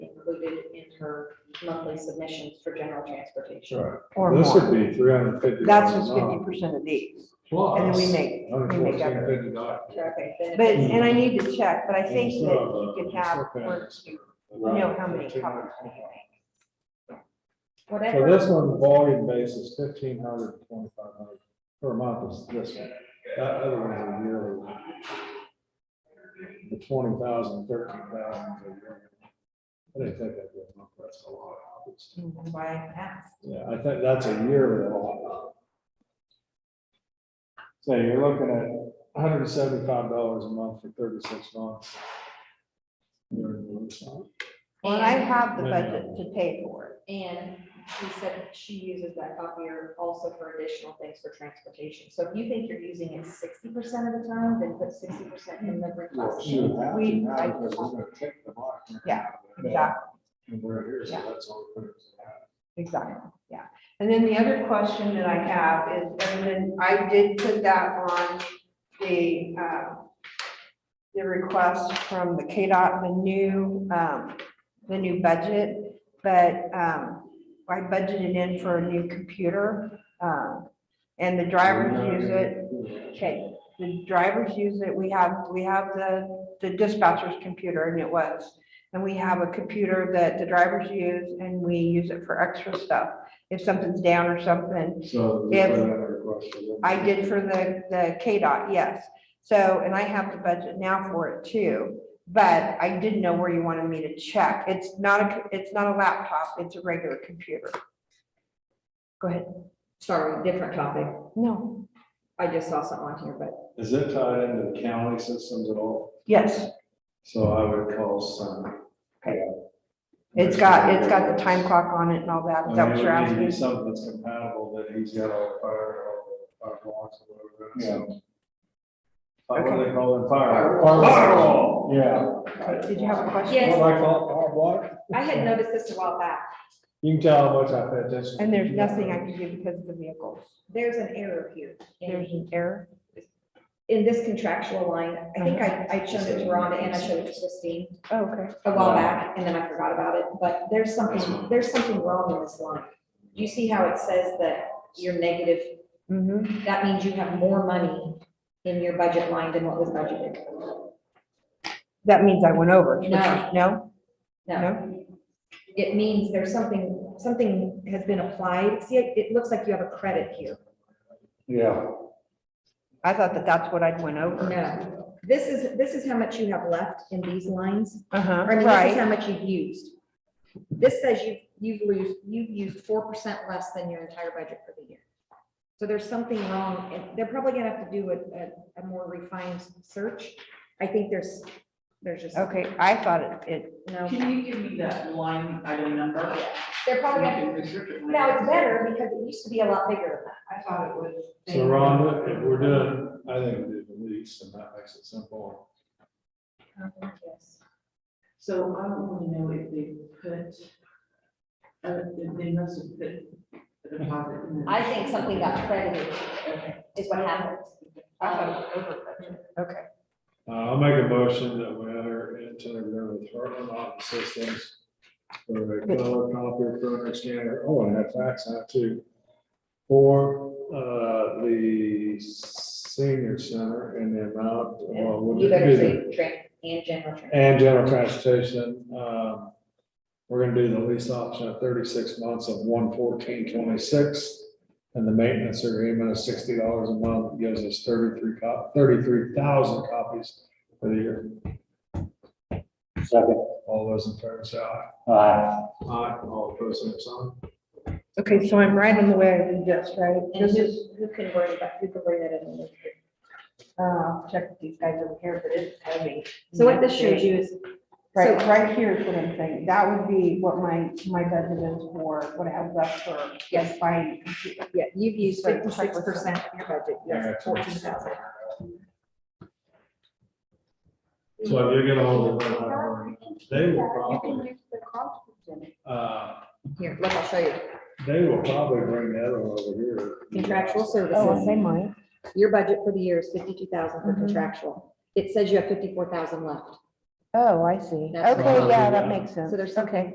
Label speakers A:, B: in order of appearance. A: included in her monthly submissions for general transportation.
B: Sure.
C: or
B: This would
C: more.
B: be three hundred and fifty.
C: That's just fifty percent of these.
B: Plus.
C: And then we make, we make effort.
B: dollars.
A: Traffic, then-
C: But,
B: Hmm.
C: and I need to check, but I think that you could
B: uh,
C: have, once you know how many covers we make.
B: So
A: Whatever,
B: this one, the volume base is fifteen hundred and twenty-five hundred per month is this one. That other one is a yearly. one. The twenty thousand, thirteen thousand is a year. I didn't think that'd be a month, that's a lot. It's-
A: that's why I asked.
B: Yeah, I think that's a yearly lot. So you're looking at hundred and seventy-five dollars a month for thirty-six months.
C: Well, I have the
B: No,
C: budget
B: no.
C: to pay for it.
A: And she said she uses that copier also for additional things for transportation. So if you think you're using it sixty percent of the time, then put sixty percent in the request. sheet.
C: We- I- Yeah, Exactly,
B: And we're here, so
C: Yeah.
B: that's all.
C: exactly, yeah. And then the other question that I have is, and then I did put that on the, uh, the request from the KDOT, the new, um, the new budget, but, um, I budgeted in for a new computer, um, and the
B: Oh,
C: drivers use it. Okay, the drivers use it, we have, we have the, the dispatcher's computer, and it was. And we have a computer that the drivers use, and we use it for extra stuff, if something's down or something.
B: So.
C: If-
B: another question.
C: I did for the, the KDOT, yes. So, and I have the budget now for it too, but I didn't know where you wanted me to check. It's not a, it's not a laptop, it's a regular computer. Go ahead.
A: Sorry, different topic.
C: No.
A: I just saw something on here, but
B: Is it tied into the county systems at all?
C: Yes,
B: So I would call some.
C: Okay. it's got, it's got the time clock on it and all that,
B: I
C: is
B: mean,
C: that what you're
B: it would need to be
C: asking?
B: Something that's compatible that he's got all the fire, all the fire blocks, whatever. so. Uh, What do they call it? Fire. Firewall. Yeah.
C: Did you have a question?
A: Yes.
B: What do I call it? Firewall?
A: I had noticed this a while back.
B: You can tell how much I pay attention.
C: And there's nothing I can do because of the vehicles.
A: There's an error here.
C: There's an error.
A: in this contractual line, I think I, I showed it to Rhonda and I showed it to Christine
C: Oh, Okay.
A: a while back, and then I forgot about it, but there's something, there's something wrong in this line. Do you see how it says that you're negative?
C: Mm-hmm.
A: That means you have more money in your budget line than what was budgeted.
C: That means I went over.
A: No.
C: No?
A: No, it means there's something, something has been applied. See, it, it looks like you have a credit here.
B: Yeah.
C: I thought that that's what I'd went over.
A: No, this is, this is how much you have left in these lines.
C: Uh-huh,
A: Or I mean, this is
C: right.
A: how much you've used. This says you, you've lose, you've used four percent less than your entire budget for the year. So there's something wrong, and they're probably gonna have to do a, a, a more refined search. I think there's, there's just,
C: Okay, I thought it, it,
A: no,
D: Can you give me that line item number?
A: they're
D: I
A: probably, gonna-
D: can restrict it.
A: now it's better because it used to be a lot bigger than that. I thought it was.
B: So Rhonda, if we're doing, I think we do the least and that makes it simple.
A: Yes.
D: So I want to know if they put, uh, they they must have put the deposit in. the-
A: I think something got credited
D: Okay.
A: is what Um, happened.
D: I thought it was over budget.
C: okay.
B: Uh, I'll make a motion that we enter into agreement with Heartland Office Systems for a color copier printer scanner, oh, and that fax out too. For, uh, the senior center and the amount, well, what
A: You
B: did
A: better
B: it
A: say
B: be?
A: train and general train.
B: And general transportation, um, we're gonna do the lease option at thirty-six months of one fourteen twenty-six. And the maintenance agreement of sixty dollars a month gives us thirty-three cop, thirty-three thousand copies for the year. Second. All those in favor say aye. Aye. Aye, all opposed, same sign.
C: Okay, so I'm right on the way I did this, right?
A: And
C: This
A: who,
C: is,
A: who can worry about, who can worry that in the future?
C: uh, I'll check with these guys over here, but it's heavy.
A: So what this shows you is,
C: Right,
A: so-
C: right here is what I'm saying. That would be what my, my budget is for, what I have left for, yes, buying. a computer.
A: yeah, you've used
C: Right, check
A: fifty-six
C: with them.
A: percent of your budget, yes, fourteen thousand.
B: So if you get a hold of them, they will probably, uh,
A: Here, look, I'll show you.
B: they will probably bring that one over here.
A: Contractual
C: Oh,
A: services,
C: they might.
A: your budget for the year is fifty-two thousand for
C: Mhm.
A: contractual. It says you have fifty-four thousand left.
C: Oh, I see.
A: That's
C: Okay, yeah,
B: probably-
C: that makes sense.
A: So there's
C: Okay.
A: something